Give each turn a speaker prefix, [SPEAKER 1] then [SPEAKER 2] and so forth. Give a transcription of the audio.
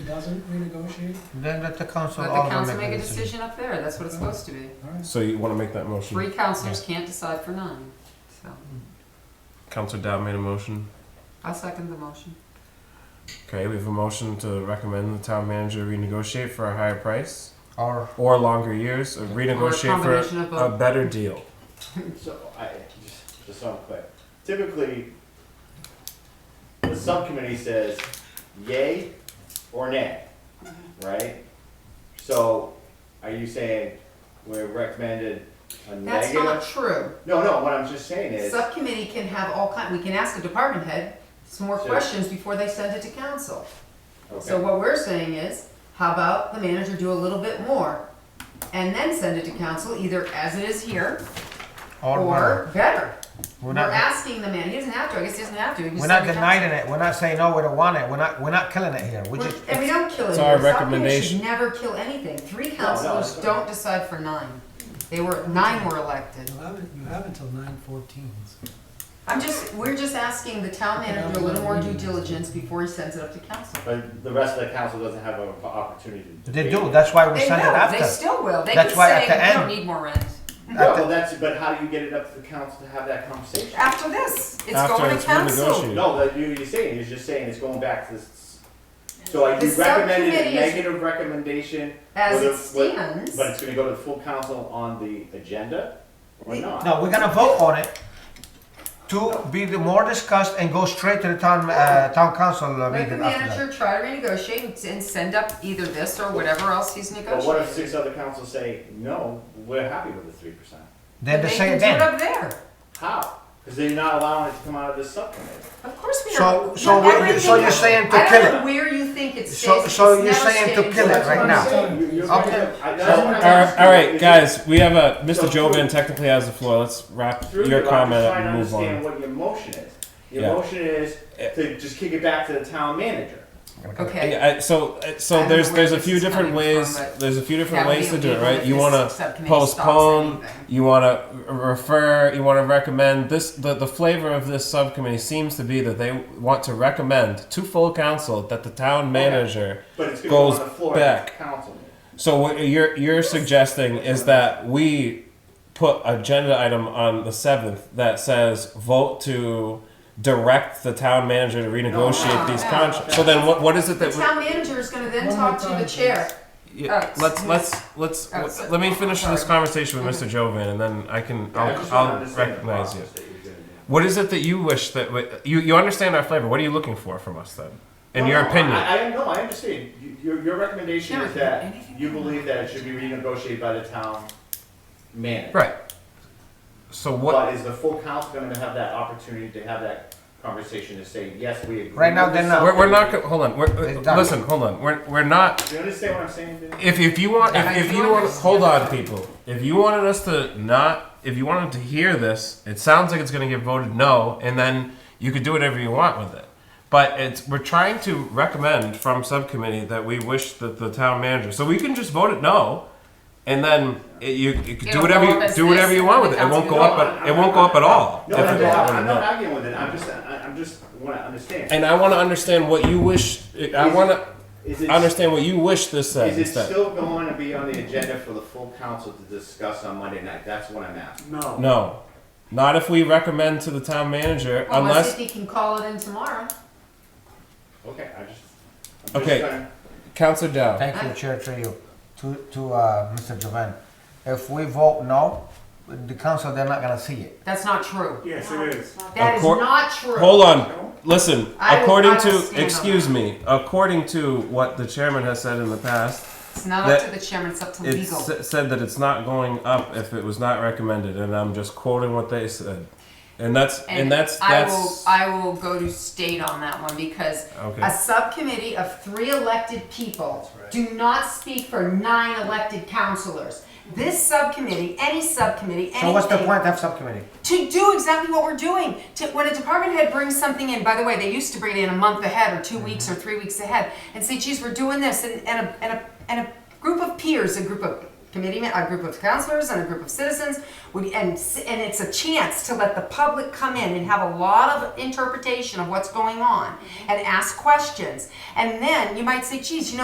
[SPEAKER 1] doesn't renegotiate?
[SPEAKER 2] Then let the council
[SPEAKER 3] Let the
[SPEAKER 2] all
[SPEAKER 3] council
[SPEAKER 2] make
[SPEAKER 3] make a
[SPEAKER 2] a decision.
[SPEAKER 3] decision up there, that's what it's supposed to be.
[SPEAKER 1] All right.
[SPEAKER 4] So you want to make that motion?
[SPEAKER 3] Three councilors can't decide for nine, so
[SPEAKER 4] Councilor Dow made a motion.
[SPEAKER 3] I'll second the motion.
[SPEAKER 4] Okay, we have a motion to recommend the town manager renegotiate for a higher price
[SPEAKER 2] Or
[SPEAKER 4] or longer years, or
[SPEAKER 3] Or a
[SPEAKER 4] renegotiate for
[SPEAKER 3] combination of
[SPEAKER 4] a
[SPEAKER 3] both.
[SPEAKER 4] better deal.
[SPEAKER 5] So I, just, just so I'm clear, typically, the subcommittee says yay or nay,
[SPEAKER 3] Mm-hmm.
[SPEAKER 5] right? So are you saying we're recommended a
[SPEAKER 3] That's not
[SPEAKER 5] negative?
[SPEAKER 3] true.
[SPEAKER 5] No, no, what I'm just saying is,
[SPEAKER 3] Subcommittee can have all kind, we can ask a department head some more
[SPEAKER 5] Sure.
[SPEAKER 3] questions before they send it to council. So
[SPEAKER 5] okay,
[SPEAKER 3] what we're saying is, how about the manager do a little bit more? And then send it to council, either as it is here,
[SPEAKER 2] or
[SPEAKER 3] or
[SPEAKER 2] one.
[SPEAKER 3] better.
[SPEAKER 2] We're
[SPEAKER 3] We're
[SPEAKER 2] not.
[SPEAKER 3] asking the man, he doesn't have to, I guess he doesn't have to. he can
[SPEAKER 2] We're
[SPEAKER 3] send
[SPEAKER 2] not
[SPEAKER 3] it to
[SPEAKER 2] denying it. We're not saying no. We don't want it. We're not. We're not killing it here. We
[SPEAKER 3] We're-
[SPEAKER 2] just.
[SPEAKER 3] And we don't kill it.
[SPEAKER 4] It's our
[SPEAKER 3] Subcommittee
[SPEAKER 4] recommendation.
[SPEAKER 3] should never kill anything. Three
[SPEAKER 5] no,
[SPEAKER 3] councilors
[SPEAKER 5] it's okay.
[SPEAKER 3] don't decide for nine. They were, nine were elected.
[SPEAKER 1] You have it, you have until nine fourteen.
[SPEAKER 3] I'm just, we're just asking the town manager a little more due diligence before he sends it up to council.
[SPEAKER 5] but the rest of the council doesn't have an opportunity to.
[SPEAKER 2] They
[SPEAKER 5] debate
[SPEAKER 2] do.
[SPEAKER 5] it.
[SPEAKER 2] That's why we
[SPEAKER 3] They
[SPEAKER 2] send it
[SPEAKER 3] will, they
[SPEAKER 2] after.
[SPEAKER 3] still will. They can
[SPEAKER 2] That's why at the
[SPEAKER 3] say, we don't
[SPEAKER 2] end-
[SPEAKER 3] need more rent.
[SPEAKER 5] No, well, that's, but how do you get it up to the council to have that conversation?
[SPEAKER 3] After this, it's
[SPEAKER 4] After
[SPEAKER 3] going to
[SPEAKER 4] it's
[SPEAKER 3] council.
[SPEAKER 4] renegotiated.
[SPEAKER 5] No, that you, you're saying, you're just saying it's going back to this, so like you
[SPEAKER 3] The
[SPEAKER 5] recommended
[SPEAKER 3] subcommittee
[SPEAKER 5] a
[SPEAKER 3] is-
[SPEAKER 5] negative recommendation
[SPEAKER 3] As
[SPEAKER 5] Well,
[SPEAKER 3] it
[SPEAKER 5] the- what-
[SPEAKER 3] stands,
[SPEAKER 5] But it's gonna go to the full council on the agenda or not?
[SPEAKER 2] No, we're gonna vote on it to be the more discussed and go straight to the town uh, town council uh,
[SPEAKER 3] let the
[SPEAKER 2] meeting after that.
[SPEAKER 3] manager try to renegotiate and- and send up either this or whatever else he's
[SPEAKER 5] But what if
[SPEAKER 3] negotiating.
[SPEAKER 5] six other councils say, no, we're happy with the three percent?
[SPEAKER 2] Then they
[SPEAKER 3] They
[SPEAKER 2] say
[SPEAKER 3] can
[SPEAKER 2] it
[SPEAKER 3] do it
[SPEAKER 2] then.
[SPEAKER 3] up there.
[SPEAKER 5] How? Because they're not allowing it to come out of this subcommittee.
[SPEAKER 3] Of course we are.
[SPEAKER 2] So so we, so you're saying to
[SPEAKER 3] I
[SPEAKER 2] kill
[SPEAKER 3] don't know
[SPEAKER 2] it.
[SPEAKER 3] where you think it stays.
[SPEAKER 2] So- so
[SPEAKER 3] It's
[SPEAKER 2] you're
[SPEAKER 3] never
[SPEAKER 2] saying to
[SPEAKER 3] staying.
[SPEAKER 2] kill it
[SPEAKER 3] That's
[SPEAKER 2] right
[SPEAKER 3] what I'm
[SPEAKER 2] now.
[SPEAKER 3] saying.
[SPEAKER 2] Okay.
[SPEAKER 4] So, all right, all right, guys, we have a Mr.
[SPEAKER 5] So through-
[SPEAKER 4] Jovan technically has the floor. Let's wrap
[SPEAKER 5] Through
[SPEAKER 4] your
[SPEAKER 5] you, I'm
[SPEAKER 4] comment
[SPEAKER 5] just
[SPEAKER 4] up
[SPEAKER 5] trying to
[SPEAKER 4] and move
[SPEAKER 5] understand
[SPEAKER 4] on.
[SPEAKER 5] what your motion is.
[SPEAKER 4] Yeah.
[SPEAKER 5] Your motion is to just kick it back to the town manager.
[SPEAKER 3] Okay.
[SPEAKER 4] Yeah, I, so, uh,
[SPEAKER 3] I
[SPEAKER 4] so
[SPEAKER 3] don't
[SPEAKER 4] there's
[SPEAKER 3] know where
[SPEAKER 4] there's a
[SPEAKER 3] this
[SPEAKER 4] few
[SPEAKER 3] is
[SPEAKER 4] different
[SPEAKER 3] coming from,
[SPEAKER 4] ways.
[SPEAKER 3] but
[SPEAKER 4] there's a few different
[SPEAKER 3] that would
[SPEAKER 4] ways
[SPEAKER 3] be
[SPEAKER 4] to do it,
[SPEAKER 3] illegal
[SPEAKER 4] right?
[SPEAKER 3] if
[SPEAKER 4] You
[SPEAKER 3] this
[SPEAKER 4] want to
[SPEAKER 3] subcommittee stops
[SPEAKER 4] postpone.
[SPEAKER 3] anything.
[SPEAKER 4] You want to refer. You want to recommend this. The, the flavor of this subcommittee seems to be that they want to recommend to full council that the
[SPEAKER 3] Oh,
[SPEAKER 4] town manager.
[SPEAKER 5] But it's gonna go
[SPEAKER 4] Goes
[SPEAKER 5] on the floor at the
[SPEAKER 4] back.
[SPEAKER 5] council meeting.
[SPEAKER 4] So what you're you're suggesting is that we put agenda item on the seventh that says vote to direct the town manager to renegotiate
[SPEAKER 3] No,
[SPEAKER 4] these
[SPEAKER 3] no,
[SPEAKER 4] contracts. So then what what is it
[SPEAKER 3] Oh, The
[SPEAKER 4] that we
[SPEAKER 3] town manager is gonna then
[SPEAKER 1] One
[SPEAKER 3] talk
[SPEAKER 1] more
[SPEAKER 3] to the
[SPEAKER 1] time,
[SPEAKER 3] chair.
[SPEAKER 4] yeah,
[SPEAKER 3] Oh,
[SPEAKER 4] let's
[SPEAKER 3] yes.
[SPEAKER 4] let's let's
[SPEAKER 3] Oh, so-
[SPEAKER 4] let me finish this
[SPEAKER 3] sorry.
[SPEAKER 4] conversation with Mr. Jovan and then I can
[SPEAKER 5] I
[SPEAKER 4] I'll,
[SPEAKER 5] just wanna
[SPEAKER 4] I'll
[SPEAKER 5] understand the
[SPEAKER 4] recognize you.
[SPEAKER 5] process that you're gonna do.
[SPEAKER 4] What is it that you wish that w- you you understand our flavor? What are you looking for from us then? In
[SPEAKER 5] No,
[SPEAKER 4] your
[SPEAKER 5] no,
[SPEAKER 4] opinion,
[SPEAKER 5] Oh, I, I no, I understand. You- Your, your recommendation
[SPEAKER 3] Sure,
[SPEAKER 5] is that
[SPEAKER 3] anything
[SPEAKER 5] you
[SPEAKER 3] you want.
[SPEAKER 5] believe that it should be renegotiated by the town manager.
[SPEAKER 4] right? So what?
[SPEAKER 5] But is the full council going to have that opportunity to have that conversation to say yes, we agree?
[SPEAKER 2] Right now,
[SPEAKER 5] with
[SPEAKER 2] they're
[SPEAKER 5] this
[SPEAKER 2] not.
[SPEAKER 4] We're, we're
[SPEAKER 5] subcommittee"?
[SPEAKER 4] not. go- Hold on. We're,
[SPEAKER 2] They've done it.
[SPEAKER 4] listen. Hold on. We're, we're not
[SPEAKER 5] Do you understand what I'm saying? Dude?
[SPEAKER 4] If, if you want,
[SPEAKER 3] And I
[SPEAKER 4] if, if
[SPEAKER 3] do
[SPEAKER 4] you want,
[SPEAKER 3] understand
[SPEAKER 4] hold on,
[SPEAKER 3] that.
[SPEAKER 4] people. If you wanted us to not, if you wanted to hear this, it sounds like it's going to get voted no, and then you could do whatever you want with it. But it's we're trying to recommend from subcommittee that we wish that the town manager, so we can just vote it no, and then it, you, you could do
[SPEAKER 3] It'll
[SPEAKER 4] whatever
[SPEAKER 3] go up
[SPEAKER 4] you
[SPEAKER 3] as
[SPEAKER 4] do whatever
[SPEAKER 3] this,
[SPEAKER 4] you want
[SPEAKER 3] and
[SPEAKER 4] with it. It
[SPEAKER 3] the
[SPEAKER 4] won't go
[SPEAKER 3] council
[SPEAKER 4] up.
[SPEAKER 3] can
[SPEAKER 4] At, it won't go up at all.
[SPEAKER 5] No,
[SPEAKER 4] if
[SPEAKER 5] I'm
[SPEAKER 4] we vote
[SPEAKER 5] not,
[SPEAKER 4] it
[SPEAKER 5] I'm
[SPEAKER 4] no.
[SPEAKER 5] not arguing with it. I'm just, I, I'm just want to understand.
[SPEAKER 4] And I want to understand what you wish. I
[SPEAKER 5] Is it-
[SPEAKER 4] want to
[SPEAKER 5] Is it,
[SPEAKER 4] understand what you wish this says.
[SPEAKER 5] Is it
[SPEAKER 4] instead.
[SPEAKER 5] still going to be on the agenda for the full council to discuss on Monday night? That's what I'm asking.
[SPEAKER 6] No.
[SPEAKER 4] No. Not if we recommend to the town manager,
[SPEAKER 3] Unless
[SPEAKER 4] unless.
[SPEAKER 3] he can call Oh, it in tomorrow.
[SPEAKER 5] Okay, I just. I'm just
[SPEAKER 4] Okay.
[SPEAKER 5] trying-
[SPEAKER 4] Counselor Dow.
[SPEAKER 2] Thank you, Chair, to you, to, to, uh, Mr. Jovan. If we vote no, the council, they're not gonna see it.
[SPEAKER 3] That's not true.
[SPEAKER 6] Yes, it is.
[SPEAKER 3] That is
[SPEAKER 4] Accor-
[SPEAKER 3] not true.
[SPEAKER 4] Hold on. Listen,
[SPEAKER 3] I will- I
[SPEAKER 4] according
[SPEAKER 3] will stand
[SPEAKER 4] to,
[SPEAKER 3] on
[SPEAKER 4] excuse
[SPEAKER 3] that.
[SPEAKER 4] me, according to what the chairman has said in the past,
[SPEAKER 3] It's not up
[SPEAKER 4] That-
[SPEAKER 3] to the chairman, it's up to
[SPEAKER 4] it
[SPEAKER 3] legal.
[SPEAKER 4] s- said that it's uh, not going up if it was not recommended, and I'm just quoting what they said. And that's, and that's,
[SPEAKER 3] I
[SPEAKER 4] that's.
[SPEAKER 3] will, I will go to state on that one because
[SPEAKER 4] Okay.
[SPEAKER 3] a subcommittee of three elected people do not speak for nine elected councilors. This subcommittee, any subcommittee,
[SPEAKER 2] So what's the
[SPEAKER 3] anything,
[SPEAKER 2] point of subcommittee?
[SPEAKER 3] to do exactly what we're doing. To, when a department head brings something in, by the way, they used to bring it in a month ahead or 2 weeks or three weeks ahead and say, geez, we're doing this. And, and, a, and, a, and a group of peers, a group of committee, men- a group of counselors and a group of citizens would, and, s- and it's a chance to let the public come in and have a lot of interpretation of what's going on and ask questions. And then you might say, geez, you know,